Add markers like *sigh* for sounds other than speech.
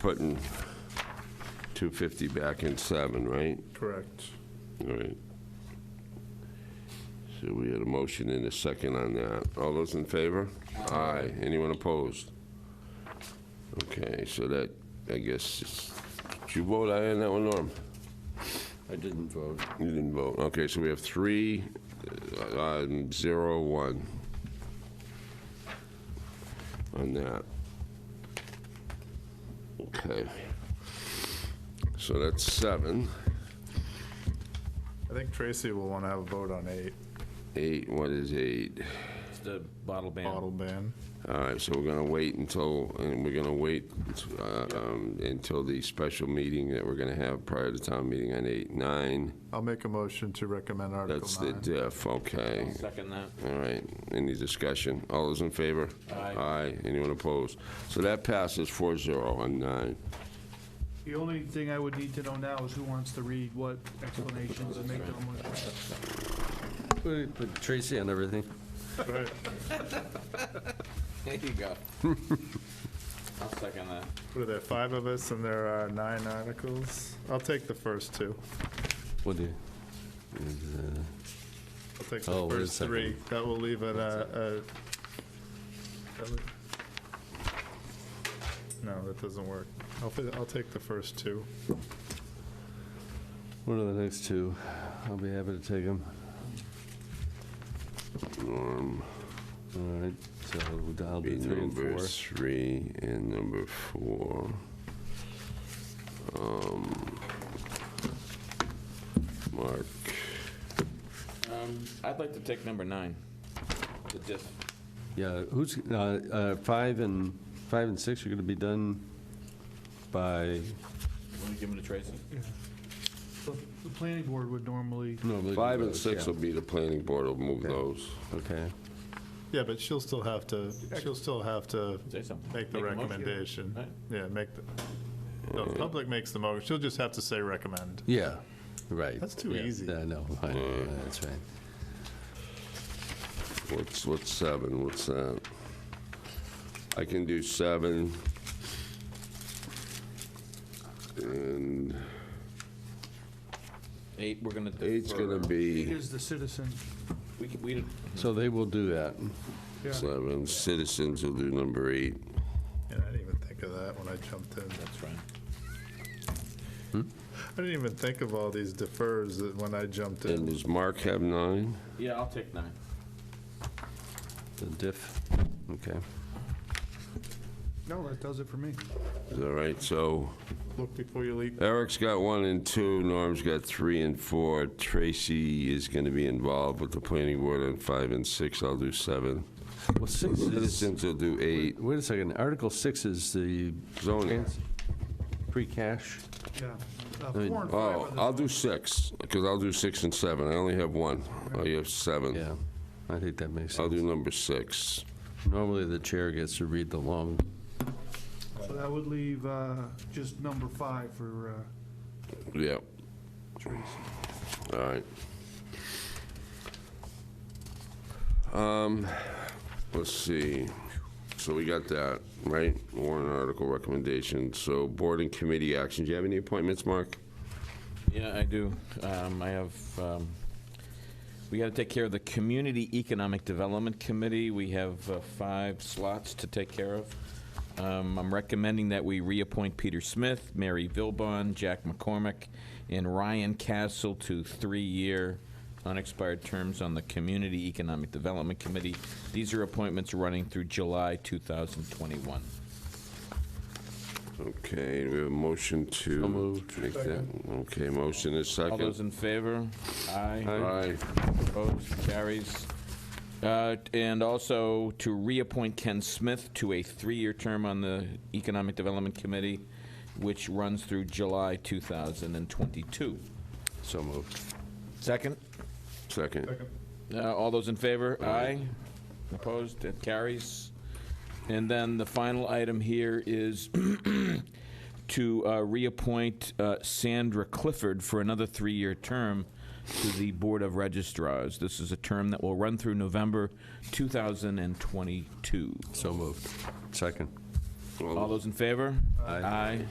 putting 250 back in seven, right? Correct. All right. So we had a motion and a second on that. All those in favor? Aye. Anyone opposed? Okay, so that, I guess, is- did you vote aye on that one, Norm? I didn't vote. You didn't vote. Okay, so we have three, uh, um, zero, one on that. Okay. So that's seven. I think Tracy will want to have a vote on eight, Eight, what is eight? It's the bottle bottle ban. ban. All right, so we're gonna wait until, and we're gonna wait uh, um, until the special meeting that we're gonna have prior to town meeting on eight, nine. I'll make a motion to recommend That's Article the 9. diff, okay. Second *laughs* that. All right, any discussion? All those in favor? Aye. Aye, anyone opposed? So that passes four zero on nine. The only thing I would need to know now is who wants to read what explanations and make them. Put Tracy on everything. Right. There you go. I'll second that. What are there, five of us and there are nine articles? I'll take the first two. What do you? I'll take the Oh, wait a first three. That will leave it, uh, uh, that would- no, that doesn't work. I'll, fi- I'll take the first two. What are the next two? I'll be happy to take them. Norm, All right, so I'll be do three and number four. three and number four. Um, Mark, Um, I'd like to take number nine, the diff. Yeah, who's, uh, uh, five and, five and six are going to be done by, Want to give them to Tracy? The planning board would normally, normally. do five and those, six yeah. will be the planning board, will move Okay. those. Okay, Yeah, but she'll still have to, she'll still have to Say something. make the a motion. recommendation. Right. Yeah, make the, no, the public makes the motion. She'll just have to say recommend. yeah, right. That's too Yeah, easy. I know, I know, that's right. What's, what's seven, what's that? I can do seven. And Eight, we're gonna. eight's gonna defer. it be is the citizen. We, can- we, did- So they will do that. Yeah. seven, citizens will do number eight. And I didn't even think of that when I jumped in. that's fine. I didn't even think of all these defers that when I jumped And in. does Mark have nine? Yeah, I'll take nine. The diff, okay. No, that does it for me. Is that right? So Look before you leap. Eric's got one and two, Norm's got three and four. Tracy is gonna be involved with the planning board on five and six, I'll do seven. Well, six is, Citizens will do eight. wait a second, Article six is the. Zoning. trans- Free cash, Yeah. Uh, mean- Four and five Oh, are I'll the, do six, because I'll do six and seven. I only have one. Oh, you have seven. yeah, I think that makes I'll sense. do number six. Normally, the chair gets to read the long, so that would leave uh, just number five for, uh, Yep. All right. Um, let's see. So we got that, right? Warrant article recommendation. So board and committee action. Do you have any appointments, Mark? Yeah, I do. Um, I have, um, we gotta take care of the Community Economic Development Committee. We have uh, five slots to take care of. Um, I'm recommending that we reappoint Peter Smith, Mary Vilbon, Jack McCormick, and Ryan Castle to three-year unexpired terms on the Community Economic Development Committee. These are appointments running through July 2021. Okay, do we have a motion to. make that. Okay, motion is All those second. in favor? All right. Opposed, carries. Uh, And also to reappoint Ken Smith to a three-year term on the Economic Development Committee, which runs through July 2022. so moved. Second? Second. Uh, All those in favor? Aye. Opposed? It carries. And then the final item here is *clears throat* to uh, reappoint uh, Sandra Clifford for another three-year term to the Board of Registrars. This is a term that will run through November 2022. So moved. Second. All those in favor? Aye.